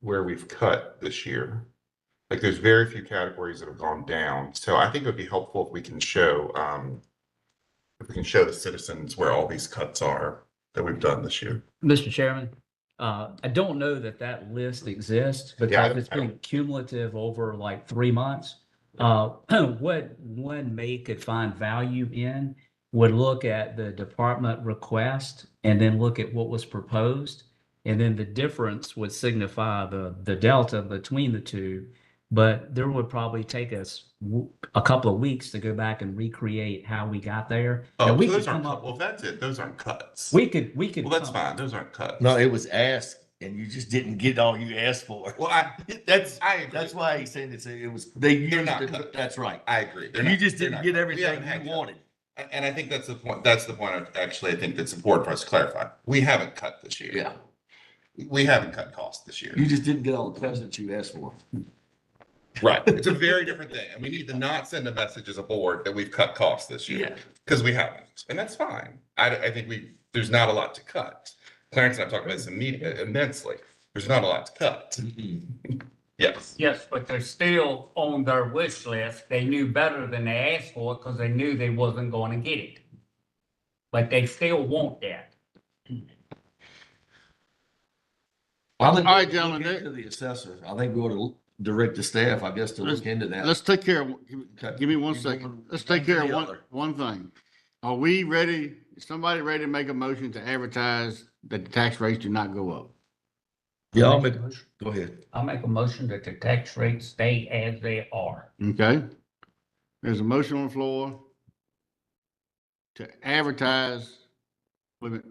where we've cut this year. Like there's very few categories that have gone down. So I think it would be helpful if we can show, um, if we can show the citizens where all these cuts are that we've done this year. Mr. Chairman, uh, I don't know that that list exists Yeah, I because don't- it's I don't- been cumulative over like three months. Uh, what one may could find value in would look at the department request and then look at what was proposed. And then the difference would signify the, the delta between the two. But there would probably take us w- a couple of weeks to go back and recreate how we got there. Oh, And we so could those aren't, come cut- up, well, if that's it, those aren't cuts. we could, we could. Well, that's come- fine. Those aren't cuts. No, it was asked and you just didn't get all you asked for. Well, I, That's, I agree. that's why he's saying it's, it was, they used, not it- cut. that's right. I agree. They're You not- just they're didn't not- get we everything haven't had you cuts. wanted. And- And I think that's the point, that's the point, I- actually, I think that's important for us to clarify. We haven't cut this year. Yeah, We haven't cut costs this year. you just didn't get all the cuts that you asked for. Right. It's a very different thing. And we need to not send a message as a board that we've cut costs this year. Because we haven't, and that's fine. I, I think we, there's not a lot to cut. Clarence and I have talked about this immediately immensely. There's not a lot to cut. Mm-hmm. Yes. Yes, but they're still on their wish list. They knew better than they asked for it because they knew they wasn't going to get it. But they still want that. All All right, gentlemen, that- To the assessor, I think we ought to direct the staff, I guess, to look into that. Let's take care, of- give me- Okay. give me one You second. going Let's one take care to of the one, other. one thing. Are we ready, is somebody ready to make a motion to advertise that the tax rates do not go up? Yeah, I'll make, go ahead. I'll make a motion that the tax rates stay as they are. Okay? There's a motion on the floor to advertise, wait a minute,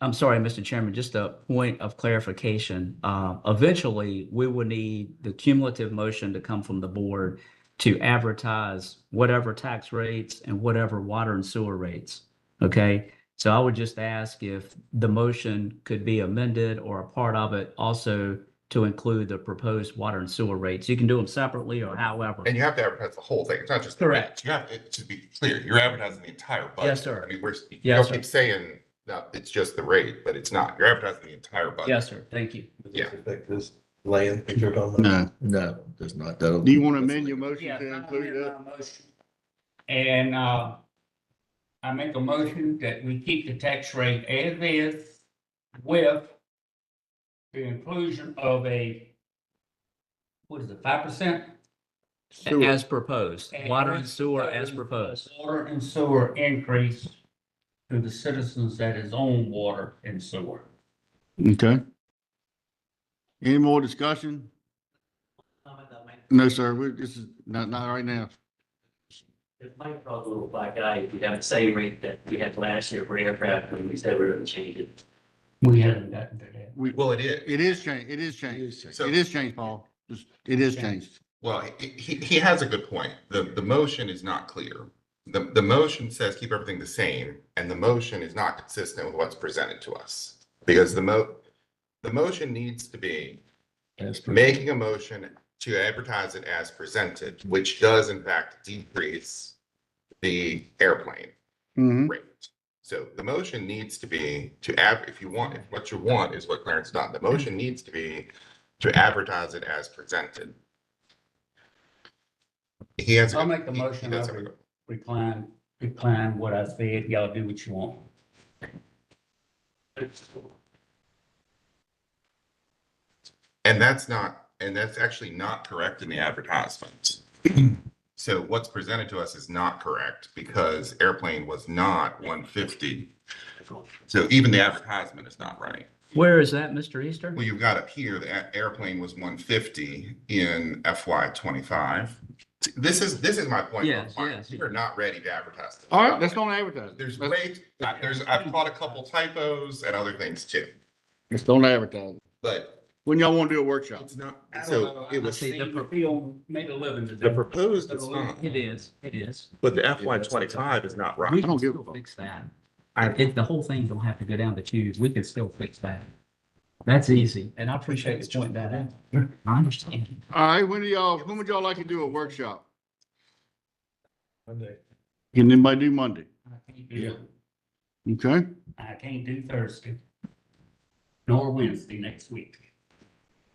I'm sorry, Mr. Chairman, just a point of clarification. Uh, Eventually, we will need the cumulative motion to come from the board to advertise whatever tax rates and whatever water and sewer rates. Okay? So I would just ask if the motion could be amended or a part of it also to include the proposed water and sewer rates. You can do them separately or however. And you have to advertise the whole thing. It's not just. Correct. You have, it should be clear. You're advertising the entire budget. Yes, sir. I mean, we're, you Yes, don't sir. keep saying, no, it's just the rate, but it's not. You're advertising the entire budget. Yes, sir. Thank you. Does this affect this land that you're talking about? no. No, there's not, that'll. Do you want to amend your motion to include that? And, uh, I make a motion that we keep the tax rate as is with the inclusion of a, what is it, five percent? Sewer. As proposed, water and sewer as proposed. Water and sewer increase to the citizens that is on water and sewer. Okay. Any more discussion? comment that might, No, sir, we, this is not, not right now. it might cause a little black eye if we have the same rate that we had last year for aircraft when we said we were gonna change it. We haven't gotten to that. We, Well, it is. it is changed, it is changed. So- It is changed, Paul. Just- It is changed. Well, he, he, he has a good point. The, the motion is not clear. The, the motion says keep everything the same, and the motion is not consistent with what's presented to us. Because the mo, the motion needs to be making a motion to advertise it as presented, which does in fact decrease the airplane Mm-hmm. rate. So the motion needs to be to add, if you want, if what you want is what Clarence done, the motion needs to be to advertise it as presented. He has. a I'll good- make the he- he motion, does I'll have a- Recline, recline what I said, y'all do what you want. And that's not, and that's actually not correct in the advertisement. So what's presented to us is not correct because airplane was not one fifty. So even the advertisement is not right. Where is that, Mr. Easter? Well, you've got up here, the a- airplane was one fifty in FY twenty-five. This is, this is my point. Yes, Mark. yes. We're not ready to advertise. this. All right, let's don't advertise. There's Let's- way, I- there's, I've caught a couple typos and other things too, Let's don't advertise. but When y'all want to do a workshop? it's not, I don't know, so I it was, see the pro- Feel made a living The today. proposed is not, It is, it is. but the FY twenty-five is not We right. can don't give a still fuck. fix that. I- If the whole thing don't have to go down the tubes, we can still fix that. That's easy, and I appreciate you pointing that out. I understand. All right, when do y'all, when would y'all like to do a workshop? Monday. Can anybody do Monday? I can't do it. Okay, I can't do Thursday. Nor Wednesday next week.